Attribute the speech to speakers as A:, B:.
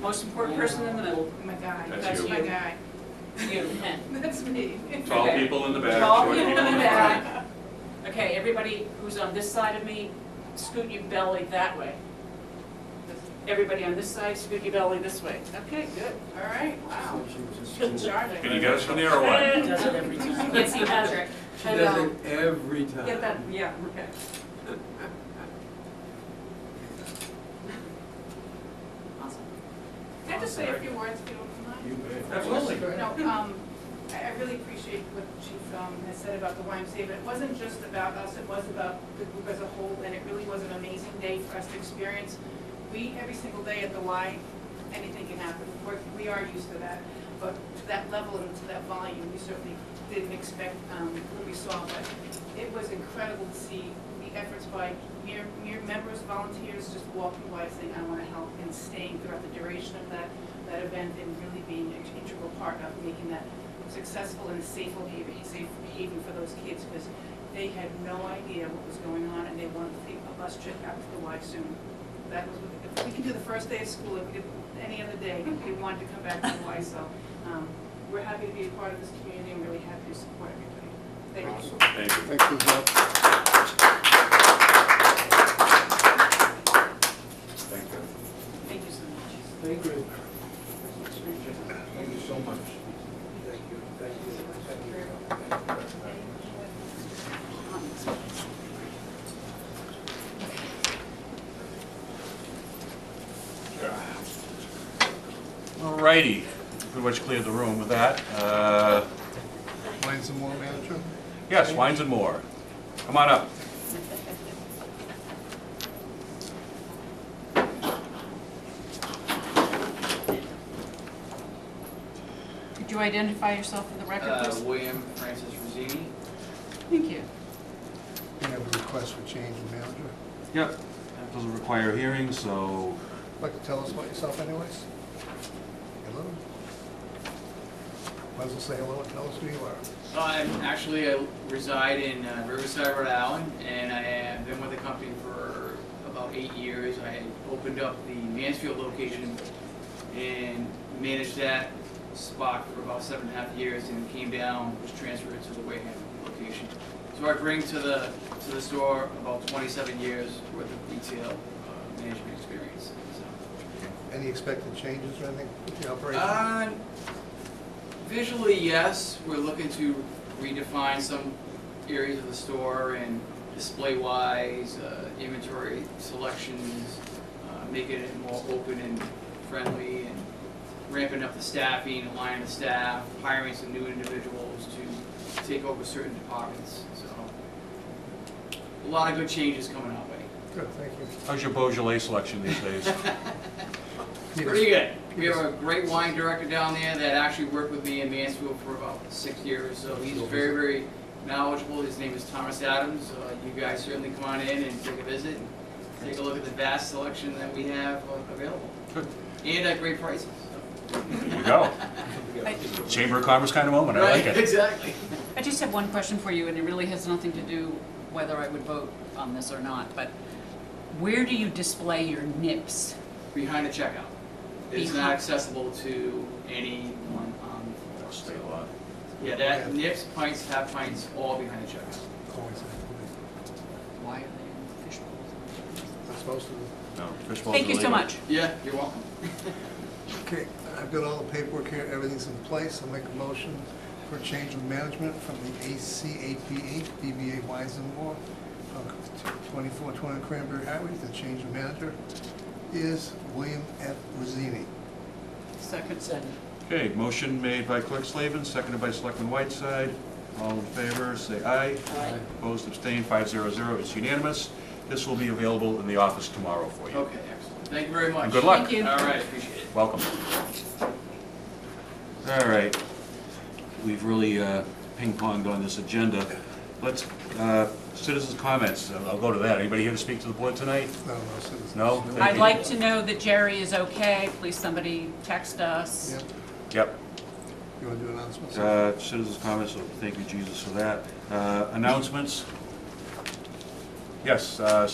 A: Most important person in the middle,
B: Oh My guy.
C: That's
B: That's
C: you.
B: my guy.
A: you.
B: That's me.
C: Tall
A: Okay.
C: people in the back,
A: Tall
C: short
A: people
C: people in the front.
A: back. Okay, everybody who's on this side of me, scoot your belly that way. Everybody on this side, scoot your belly this way. Okay, good, all right, wow. Good charting.
C: Can you get us from there or what?
D: Does it every time.
A: Yes, he has it.
D: She
A: I
D: does
A: know.
D: it every time.
A: Get that, yeah, okay. Awesome.
B: Can I just say a few words, if you don't mind?
D: You bet.
C: Absolutely.
B: No, um, I, I really appreciate what Chief, um, has said about the YMCA, but it wasn't just about us, it was about the group as a whole, and it really was an amazing day for us to experience. We, every single day at the Y, anything can happen, we're, we are used to that, but to that level and to that volume, we certainly didn't expect, um, what we saw, but it was incredible to see the efforts by mere, mere members, volunteers, just walking by saying, I wanna help, and staying throughout the duration of that, that event and really being an integral part of making that successful and a safe haven, safe haven for those kids, because they had no idea what was going on, and they wanted to take a bus trip out to the Y soon. That was, what- if we could do the first day of school, if we did any other day, they wanted to come back to the Y, so, um, we're happy to be a part of this community, and really happy to support everybody. Thank you.
C: Thank you.
E: Thank you, Jeff.
B: Thank you so much.
E: Thank you. Thank you so much. Thank you, thank you, thank
C: All righty, pretty much cleared the room with that. Uh,
E: you. Find some more, Madam Chair?
C: Yes, wines and more. Come on up.
B: Could you identify yourself for the record,
F: Uh,
B: please?
F: William Francis Rosini.
B: Thank you.
E: We have a request for change in manager.
C: Yep, that doesn't require a hearing, so
E: Like to tell us about yourself anyways? Hello? Might as well say hello and tell us who you are.
F: Uh, I'm actually, I reside in uh, Riverside, Rhode Island, and I have been with the company for about eight years. I had opened up the Mansfield location and managed that spot for about seven and a half years and came down, was transferred to the Wareham location. So I bring to the, to the store about 27 years worth of retail uh, management experience, so.
E: Any expected changes or anything with the operation?
F: Uh, Visually, yes, we're looking to redefine some areas of the store and display-wise, uh, inventory selections, uh, making it more open and friendly, and ramping up the staffing, aligning the staff, hiring some new individuals to take over certain departments, so. A lot of good changes coming our way.
E: Good, thank you.
C: how's your Beaujolais selection these days?
F: Pretty good. We have a great wine director down there that actually worked with me in Mansfield for about six years, so he's very, very knowledgeable. His name is Thomas Adams. Uh, You guys certainly come on in and take a visit, and take a look at the vast selection that we have uh, available.
C: Good.
F: And at great prices.
C: There you go.
G: I-
C: Chamber of Commerce kind of moment, I like
F: Right,
C: it.
F: exactly.
G: I just have one question for you, and it really has nothing to do whether I would vote on this or not, but where do you display your nips?
F: Behind the checkout. It's not
G: Behind-
F: accessible to anyone on the floor.
C: State law.
F: Yeah, that, nips, pints, half pints, all behind the checkout.
E: Always, happy.
G: Why are they in fishbowls?
E: I'm supposed to.
C: No, fishbowls are
G: Thank you so
C: legal.
G: much.
F: Yeah, you're welcome.
E: Okay, I've got all the paperwork here, everything's in place, I'll make a motion for change of management from the ACAPH, DBA Wise and More, twenty-four twenty Cranberry Highway, the change of manager is William F. Rosini.
G: Second. Second.
C: Okay, motion made by Clerk Slavin, seconded by Selectman Whiteside. All in favor, say aye.
G: Aye.
C: Opposed, abstained, five zero zero, it's unanimous. This will be available in the office tomorrow for you.
F: Okay, excellent. Thank you very much.
C: Good luck.
G: Thank you.
F: All right, appreciate it.
C: Welcome. All right, we've really uh, ping-ponged on this agenda. Let's, uh, citizens' comments, I'll go to that. Anybody here to speak to the board tonight?
E: No, no, citizens.
C: No? Thank
G: I'd
C: you.
G: like to know that Jerry is okay, please somebody text us.
E: Yep,
C: Yep.
E: you want to do announcements?
C: Uh, Citizens' comments, so thank you, Jesus, for that. Uh, Announcements? Yes, uh,